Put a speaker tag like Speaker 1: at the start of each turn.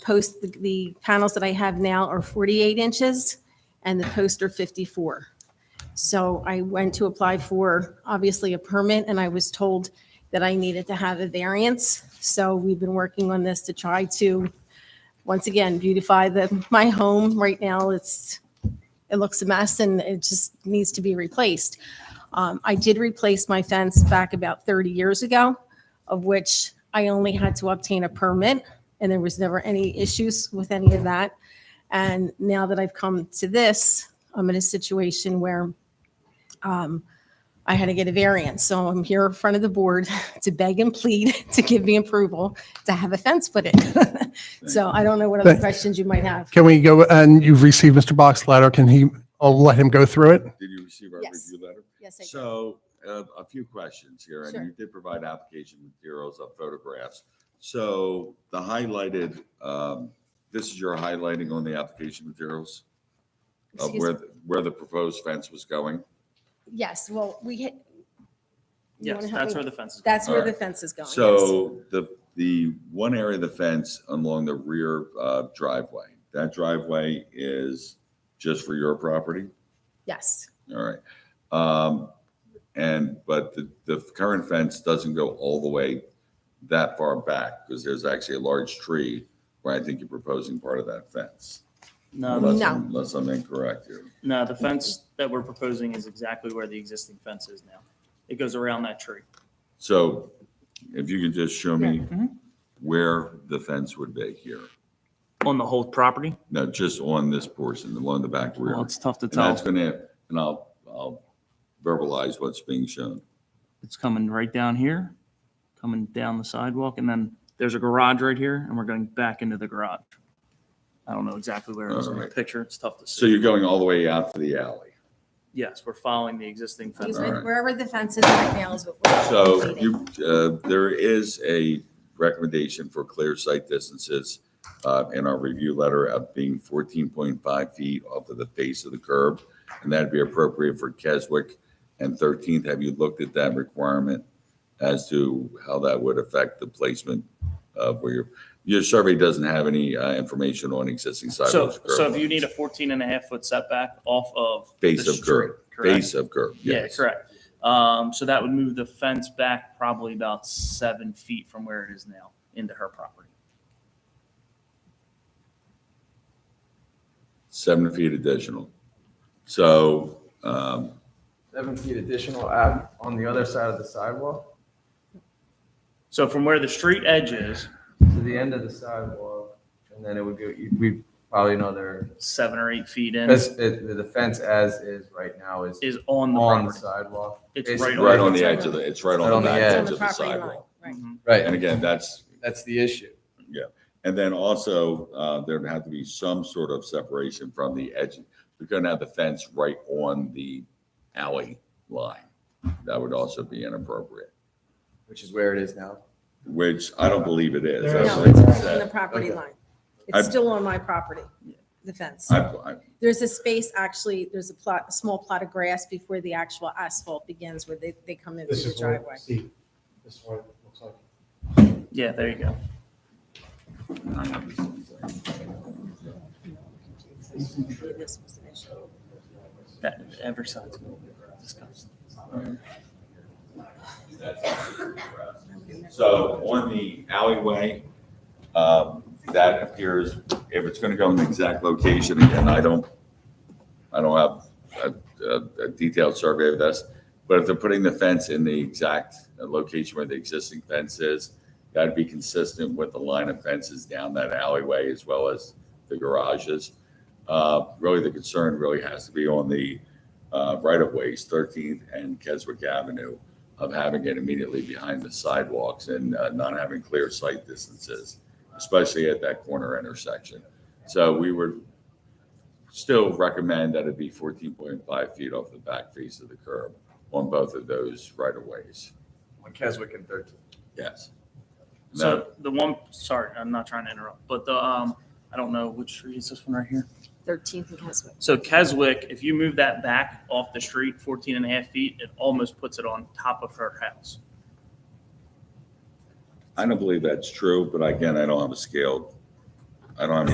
Speaker 1: post, the- the panels that I have now are 48 inches and the posts are 54. So I went to apply for, obviously, a permit and I was told that I needed to have a variance. So we've been working on this to try to, once again, beautify the, my home. Right now, it's, it looks a mess and it just needs to be replaced. Um, I did replace my fence back about 30 years ago, of which I only had to obtain a permit, and there was never any issues with any of that. And now that I've come to this, I'm in a situation where um, I had to get a variance. So I'm here in front of the board to beg and plead to give me approval to have a fence put in. So I don't know what other
Speaker 2: Thank-
Speaker 1: questions you might have.
Speaker 2: Can we go, and you've received Mr. Bach's letter, can he, I'll let him go through it?
Speaker 3: Did you receive our
Speaker 1: Yes.
Speaker 3: review letter?
Speaker 1: Yes, I do.
Speaker 3: So uh, a few questions here, and you did provide application materials of photographs. So the highlighted, um, this is your highlighting on the application materials of
Speaker 1: Excuse
Speaker 3: uh, where, where the proposed fence was going.
Speaker 1: Yes, well, we hit. you wanna
Speaker 4: Yes,
Speaker 1: help
Speaker 4: that's
Speaker 1: me?
Speaker 4: where the fence is.
Speaker 1: That's where the
Speaker 3: Alright.
Speaker 1: fence is going. yes.
Speaker 3: So the, the one area of the fence along the rear uh, driveway, that driveway is just for your property?
Speaker 1: Yes,
Speaker 3: All right. Um, and, but the, the current fence doesn't go all the way that far back because there's actually a large tree where I think you're proposing part of that fence.
Speaker 4: Um, No, the-
Speaker 3: Unless,
Speaker 1: No.
Speaker 3: I'm- unless I'm incorrect here.
Speaker 4: no, the fence that we're proposing is exactly where the existing fence is now. It goes around that tree.
Speaker 3: So if you could just show me
Speaker 4: Mhm.
Speaker 3: where the fence would be here.
Speaker 4: On the whole property?
Speaker 3: No, just on this portion, along the back rear.
Speaker 4: Well,
Speaker 3: And
Speaker 4: it's tough to
Speaker 3: that's
Speaker 4: tell.
Speaker 3: gonna, and I'll, I'll verbalize what's being shown.
Speaker 4: It's coming right down here, coming down the sidewalk, and then there's a garage right here, and we're going back into the garage. I don't know exactly where it is in the
Speaker 3: Alright.
Speaker 4: picture. It's tough to see.
Speaker 3: So you're going all the way out to the alley.
Speaker 4: Yes, we're following the existing fence.
Speaker 1: excuse me,
Speaker 3: Alright.
Speaker 1: wherever the fence is right now is what we're.
Speaker 3: So
Speaker 1: completing.
Speaker 3: you, uh, there is a recommendation for clear sight distances uh, in our review letter of being 14.5 feet off of the face of the curb, and that'd be appropriate for Keswick and 13th. Have you looked at that requirement as to how that would affect the placement of where your, your survey doesn't have any uh, information on existing
Speaker 4: So,
Speaker 3: sidewalks? curb
Speaker 4: so if you
Speaker 3: lines.
Speaker 4: need a 14 and a half foot setback off of. the
Speaker 3: Face of
Speaker 4: street,
Speaker 3: curb,
Speaker 4: Correct.
Speaker 3: Base of curb,
Speaker 4: Yeah,
Speaker 3: yes.
Speaker 4: correct. Um, so that would move the fence back probably about seven feet from where it is now into her property.
Speaker 3: Seven feet additional. So um,
Speaker 5: Seven feet additional out on the other side of the sidewalk,
Speaker 4: So from where the street edge is,
Speaker 5: to the end of the sidewalk, and then it would go, we probably another,
Speaker 4: seven or eight feet in
Speaker 5: that's, it- the fence as is right now is
Speaker 4: is on the
Speaker 5: on the
Speaker 4: property.
Speaker 5: sidewalk.
Speaker 4: It's
Speaker 5: basically-
Speaker 3: Right on the edge of the, it's right
Speaker 5: Right
Speaker 3: on the back edge
Speaker 1: It's on
Speaker 3: of
Speaker 1: the
Speaker 3: the
Speaker 1: property line,
Speaker 3: sidewalk.
Speaker 1: right.
Speaker 4: Mhm.
Speaker 3: And again, that's,
Speaker 5: That's the issue.
Speaker 3: and then also, uh, there'd have to be some sort of separation from the edge. We're gonna have the fence right on the alley line. That would also be inappropriate,
Speaker 5: Which is where it is now.
Speaker 3: which I don't believe it is. I
Speaker 1: No,
Speaker 3: believe
Speaker 1: it's
Speaker 3: it's
Speaker 1: right on the
Speaker 3: that-
Speaker 1: property
Speaker 5: Okay.
Speaker 1: line.
Speaker 3: I-
Speaker 1: It's still on my property, the fence.
Speaker 3: I, I,
Speaker 1: There's a space, actually, there's a plot, a small plot of grass before the actual asphalt begins where they, they come into
Speaker 6: This
Speaker 1: the
Speaker 6: is what,
Speaker 1: driveway.
Speaker 6: see, this is what it looks like.
Speaker 4: Yeah, there you go.
Speaker 3: I have this.
Speaker 1: This was an issue.
Speaker 4: That, every side's gonna be discussed.
Speaker 3: So on the alleyway, um, that appears, if it's going to go in the exact location, again, I don't, I don't have a- a, a detailed survey of this, but if they're putting the fence in the exact location where the existing fence is, that'd be consistent with the line of fences down that alleyway as well as the garages. Uh, Really, the concern really has to be on the uh, right-of-ways, 13th and Keswick Avenue of having it immediately behind the sidewalks and uh, not having clear sight distances, especially at that corner intersection. So we would still recommend that it be 14.5 feet off the back face of the curb on both of those right of ways.
Speaker 5: On Keswick and Thirteen.
Speaker 3: Yes. Now,
Speaker 4: So the one, sorry, I'm not trying to interrupt, but the, um, I don't know which street is this one right here?
Speaker 1: 13th and Keswick.
Speaker 4: So Keswick, if you move that back off the street 14 and a half feet, it almost puts it on top of her house.
Speaker 3: I don't believe that's true, but again, I don't have a scaled, I I don't have any